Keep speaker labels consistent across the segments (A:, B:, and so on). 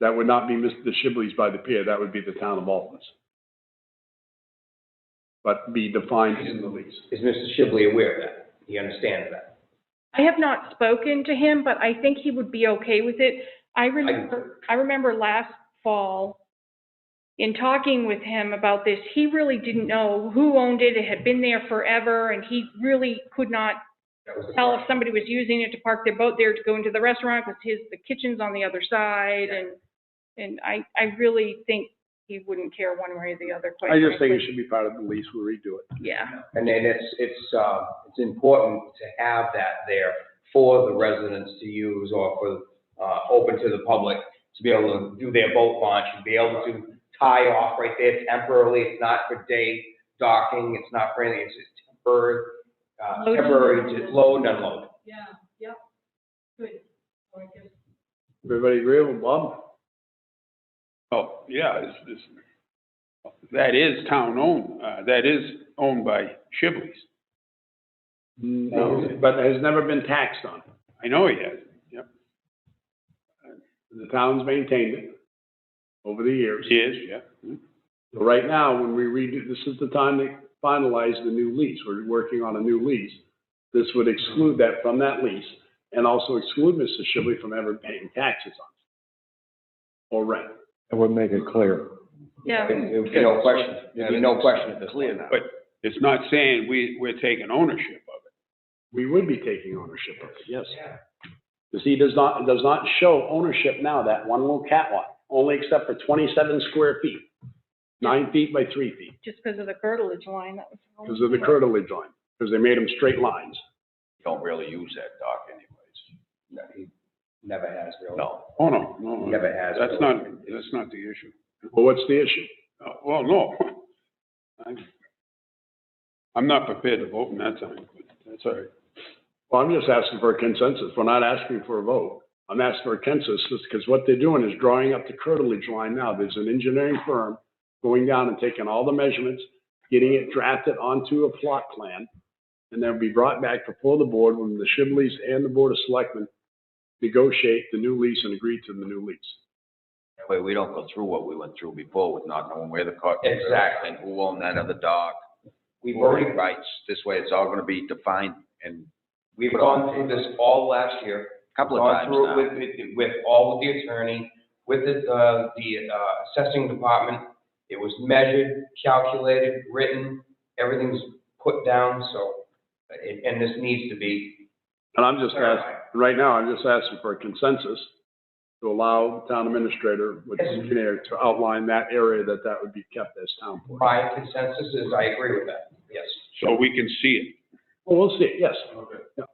A: That would not be Mr. Shibley's by the pier, that would be the town of Alton's. But be defined in the lease.
B: Is Mr. Shibley aware of that? He understands that?
C: I have not spoken to him, but I think he would be okay with it. I remember, I remember last fall, in talking with him about this, he really didn't know who owned it. It had been there forever, and he really could not
B: That was the
C: tell if
B: question.
C: somebody was using it to park their boat there to go into the restaurant, because his, the kitchen's on the other side, and, and I, I really think he wouldn't care one way or the other, quite
A: I just think it
C: frankly.
A: should be part of the lease, we'll redo it.
C: Yeah.
B: And then it's, it's, uh, it's important to have that there for the residents to use or for, uh, open to the public to be able to do their boat launch and be able to tie off right there temporarily. It's not for day docking, it's not for anything, it's just temporary, uh,
C: Load and
B: temporary
C: unload.
B: to load and unload.
D: Yeah, yep. Good. Or I guess
A: Everybody agree with Bob?
E: Oh, yeah, it's, it's, that is town owned, uh, that is owned by Shibley's.
A: No, but has never been taxed on.
E: I know he has, yep,
A: The town's maintained it over the years.
E: he is, yeah.
A: So Right now, when we redo, this is the time to finalize the new lease, we're working on a new lease. This would exclude that from that lease and also exclude Mr. Shibley from ever paying taxes on it. Or rent.
F: It would make it clear.
C: Yeah.
B: There'd be no question, there'd be no question at this point.
E: But it's not saying we, we're taking ownership of it.
A: We would be taking ownership of it, yes. Because he does not, does not show ownership now, that one little catwalk, only except for twenty-seven square feet. Nine feet by three feet,
C: Just because of the curtilage line, that was.
A: because of the curtilage line, because they made them straight lines.
G: don't really use that dock anyways.
B: No, he Never has, really.
G: No.
E: Oh, no, no.
B: Never has.
E: That's
B: really.
E: not, that's not the issue.
A: Well, what's the issue?
E: Uh, Well, no. I'm- I'm not prepared to vote in that time, but that's all right.
A: Well, I'm just asking for a consensus. We're not asking for a vote. I'm asking for a consensus because what they're doing is drawing up the curtilage line now. There's an engineering firm going down and taking all the measurements, getting it drafted onto a plot plan. And they'll be brought back before the board when the Shibleys and the Board of Selectmen negotiate the new lease and agree to the new lease.
G: That way we don't go through what we went through before with not knowing where the car.
B: Exactly.
G: And who owned that other dock,
B: We've
G: voting
B: already,
G: rights. This way it's all gonna be defined and
B: we've gone through this all last year.
G: a couple of
B: Gone
G: times
B: through it
G: now.
B: with, with, with all of the attorney, with the, uh, the uh, assessing department. It was measured, calculated, written, everything's put down, so, and, and this needs to be.
A: And I'm just asking,
B: clarified.
A: right now, I'm just asking for a consensus to allow the town administrator with the engineer to outline that area that that would be kept as town plan.
B: My consensus is I agree with that, yes.
E: So we can see it.
A: Well, we'll see, yes. Yeah.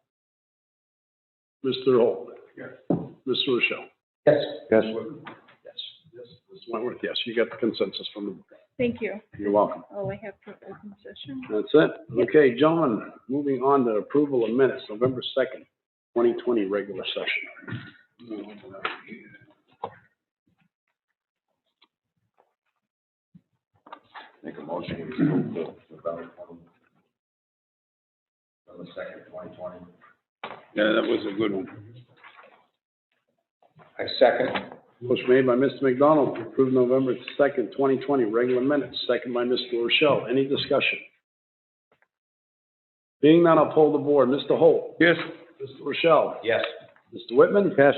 A: Mr. Holt?
E: Yes.
A: Mr. Rochelle?
B: Yes.
F: Yes.
A: Yes. Mr. Wentworth, yes, you got the consensus from the, board.
C: Thank you.
A: you're welcome.
C: Oh, I have for open session.
A: That's it. Okay, gentlemen, moving on to approval of minutes, November 2nd, 2020, regular session.
G: Make a motion. we approve the November 20. November second, twenty twenty.
E: Yeah, that was a good one.
B: I second.
A: Motion made by Mr. McDonald to approve November 2nd, 2020, regular minutes, second by Mr. Rochelle. Any discussion? Being none, I'll poll the board. Mr. Holt?
E: Yes,
A: Mr. Rochelle?
B: Yes.
A: Mr. Whitman?
F: Yes,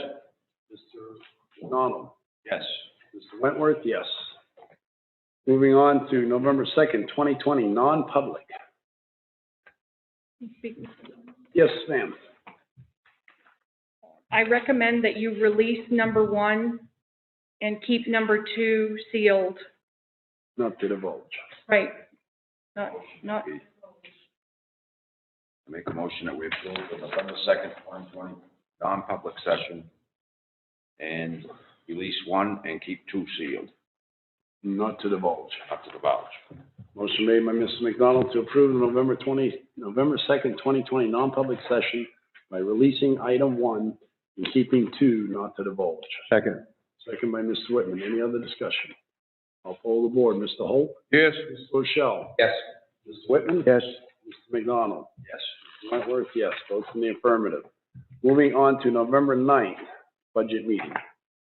A: Mr. McDonald?
G: Yes.
A: Mr. Wentworth, yes. Moving on to November 2nd, 2020, non-public. Yes, ma'am.
C: I recommend that you release number one and keep number two sealed.
A: Not to divulge.
C: Right. Not, not,
G: Make a motion that we approve the November second, twenty twenty, non-public session. And release one and keep two sealed,
A: Not to divulge.
G: up to the vouch.
A: Motion made by Mrs. McDonald to approve the November 20, November 2nd, 2020, non-public session by releasing item one and keeping two not to divulge.
F: second.
A: Second by Mr. Whitman. Any other discussion? I'll poll the board. Mr. Holt?
E: yes.
A: Mr. Rochelle?
B: Yes.
A: Mr. Whitman?
F: Yes,
A: Mr. McDonald?
G: Yes.
A: Wentworth, yes. Votes in the affirmative. Moving on to November 9th, budget meeting.